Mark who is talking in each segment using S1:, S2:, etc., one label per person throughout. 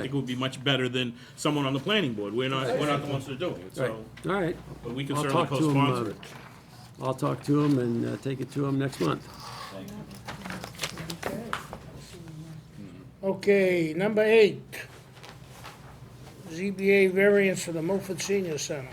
S1: I think it would be much better than someone on the planning board. We're not, we're not the ones to do it, so,
S2: All right.
S1: but we can
S2: I'll
S1: certainly
S2: talk to him. uh,
S1: co-sponsor it.
S2: I'll talk to him and uh, take it to him next month.
S3: Okay, number eight. ZBA variance for the Milford Senior Center.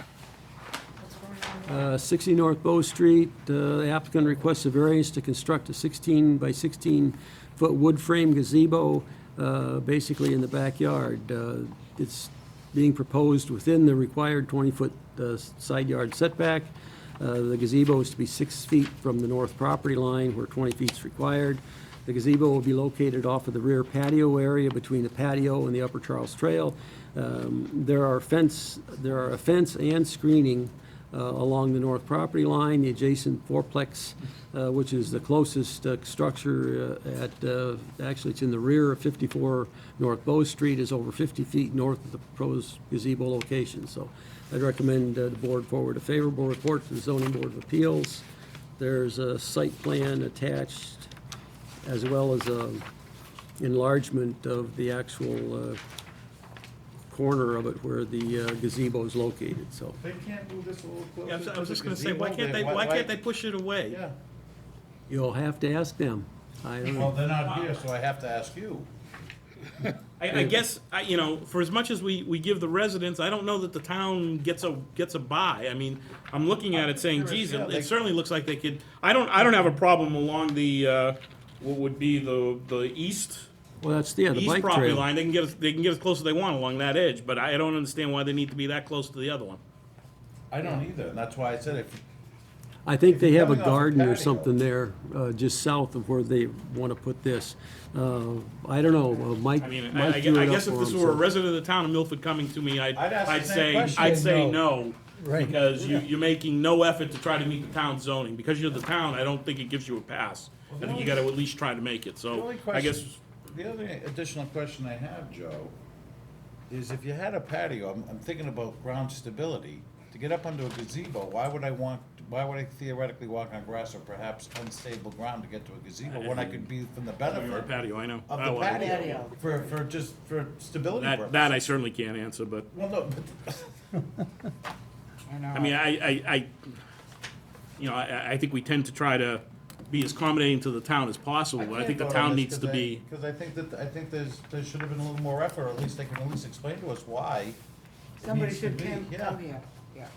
S2: Uh, 60 North Bow Street, uh, the applicant requests a variance to construct a 16 by 16-foot wood frame gazebo, uh, basically in the backyard. Uh, It's being proposed within the required 20-foot uh, side yard setback. Uh, The gazebo is to be six feet from the north property line where 20 feet is required. The gazebo will be located off of the rear patio area between the patio and the Upper Charles Trail. Um, There are fence, there are a fence and screening uh, along the north property line, the adjacent fourplex, uh, which is the closest uh, structure uh, at, uh, actually, it's in the rear of 54 North Bow Street, is over 50 feet north of the proposed gazebo location. So I'd recommend uh, the board forward a favorable report to the zoning board of appeals. There's a site plan attached, as well as a enlargement of the actual uh, corner of it where the uh, gazebo is located, so.
S4: They can't move this a little closer.
S1: Yeah, I was- I was
S4: to the
S1: just gonna say, why
S4: gazebo,
S1: can't they,
S4: then
S1: why can't they push it away?
S4: Yeah,
S2: You'll have to ask them. I don't
S4: well,
S2: know.
S4: they're not here, so I have to ask you.
S1: I, I guess, I, you know, for as much as we, we give the residents, I don't know that the town gets a, gets a buy. I mean, I'm looking at it saying, geez, it it certainly looks like they could, I don't, I don't have a problem along the, uh, what would be the, the east,
S2: Well, that's, yeah, the
S1: east
S2: bike
S1: property
S2: trail.
S1: line. They can get, as- they can get as close as they want along that edge, but I don't understand why they need to be that close to the other one.
S4: I don't either, and that's why I said if,
S2: I think they have a
S4: Coming off the
S2: garden or
S4: patio.
S2: something there, uh, just south of where they want to put this. Uh, I don't know, uh, Mike,
S1: I mean, I, I
S2: Mike
S1: guess
S2: drew
S1: I
S2: it up
S1: guess if
S2: for
S1: this were a
S2: him. so-
S1: resident of the town of Milford coming to me, I'd,
S4: I'd ask the
S1: I'd
S4: same
S1: say,
S4: question.
S1: I'd say no. Because you, you're making no effort to try to meet the town zoning. Because you're the town, I don't think it gives you a pass. I think you gotta at least try to make it,
S4: the
S1: so
S4: only
S1: Oh, I
S4: question,
S1: guess,
S4: the other additional question I have, Joe, is if you had a patio, I'm, I'm thinking about ground stability. To get up onto a gazebo, why would I want, why would I theoretically walk on grass or perhaps unstable ground to get to a gazebo when I could be from the
S1: we were a
S4: benefit
S1: patio, I know.
S4: of
S1: Oh,
S4: the
S1: well,
S4: patio? For, for just, for stability
S1: That, that
S4: purposes.
S1: I certainly can't answer, but,
S4: Well, no, but
S1: I mean, I, I, I, you know, I, I think we tend to try to be as accommodating to the town as possible, but I think the town needs to be.
S4: Because I think that, I think there's, there should have been a little more effort, or at least they can at least explain to us why. it
S5: Somebody
S4: needs to
S5: should
S4: be.
S5: come, come
S4: Yeah,
S5: here, yeah.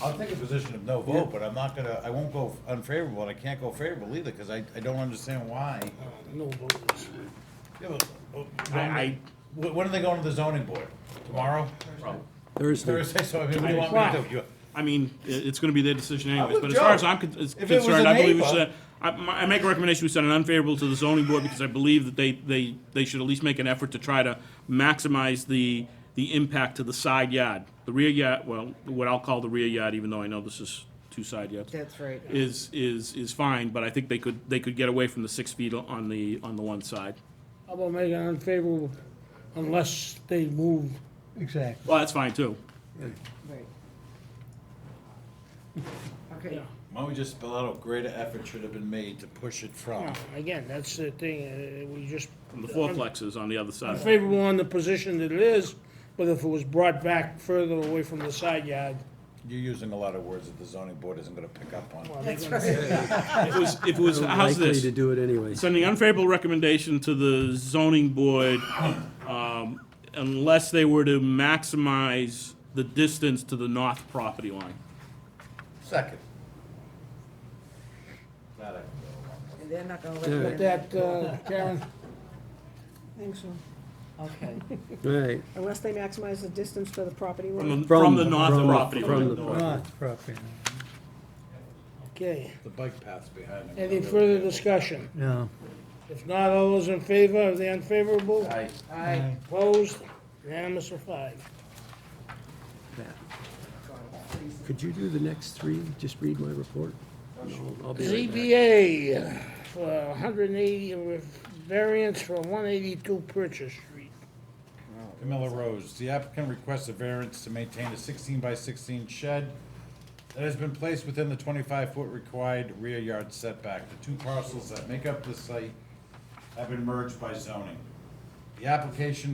S4: I'll take a position of no vote, but I'm not gonna, I won't go unfavorable, and I can't go favorable either, because I, I don't understand why.
S3: No voters.
S4: Yeah, but, uh,
S1: I, I,
S4: When, when are they going to the zoning board? Tomorrow?
S2: Thursday.
S4: Thursday, so I mean, what do you want me to do? You-
S1: I mean, i- it's gonna be their decision anyways,
S4: with
S1: but as far
S4: Joe.
S1: as I'm con- is
S4: If it was
S1: concerned,
S4: a
S1: I believe we
S4: neighbor-
S1: should, I, my- I make a recommendation, we send an unfavorable to the zoning board, because I believe that they, they, they should at least make an effort to try to maximize the, the impact to the side yard. The rear yard, well, what I'll call the rear yard, even though I know this is two side yards,
S5: That's right.
S1: is, is, is fine, but I think they could, they could get away from the six feet on the, on the one side.
S3: How about making unfavorable unless they move?
S6: Exactly.
S1: Well, that's fine too.
S5: Right. Okay,
S4: Why don't we just spell out a greater effort should have been made to push it from?
S3: Now, Again, that's the thing, uh, we just.
S1: The fourplex is on the other side.
S3: Favorable on the position that it is, but if it was brought back further away from the side yard.
S4: You're using a lot of words that the zoning board isn't gonna pick up on.
S3: well, they're
S5: that's
S3: gonna-
S5: right.
S1: If it was, if it was, how's
S2: Likely
S1: this?
S2: to do it anyway.
S1: Sending unfavorable recommendation to the zoning board, um, unless they were to maximize the distance to the north property line.
S4: Second. That I can go along with.
S5: And they're not gonna
S3: With
S5: let that,
S3: that, uh, Karen,
S7: Think so.
S5: okay.
S2: All right.
S7: Unless they maximize the distance to the property
S1: From
S7: line.
S1: the, from the north
S2: from
S1: property line.
S2: From the property.
S6: Not property.
S3: okay.
S4: The bike path's behind it.
S3: Any further discussion?
S6: No.
S3: If not, all those in favor of the unfavorable?
S4: Aye.
S5: I,
S3: Opposed? Unanimous of five.
S2: Could you do the next three? Just read my report? No, I'll be right back.
S3: ZBA for 180, with variance for 182 Purchase Street.
S4: Camilla Rose, the applicant requests a variance to maintain a sixteen by sixteen shed that has been placed within the twenty-five foot required rear yard setback. The two parcels that make up the site have been merged by zoning. The application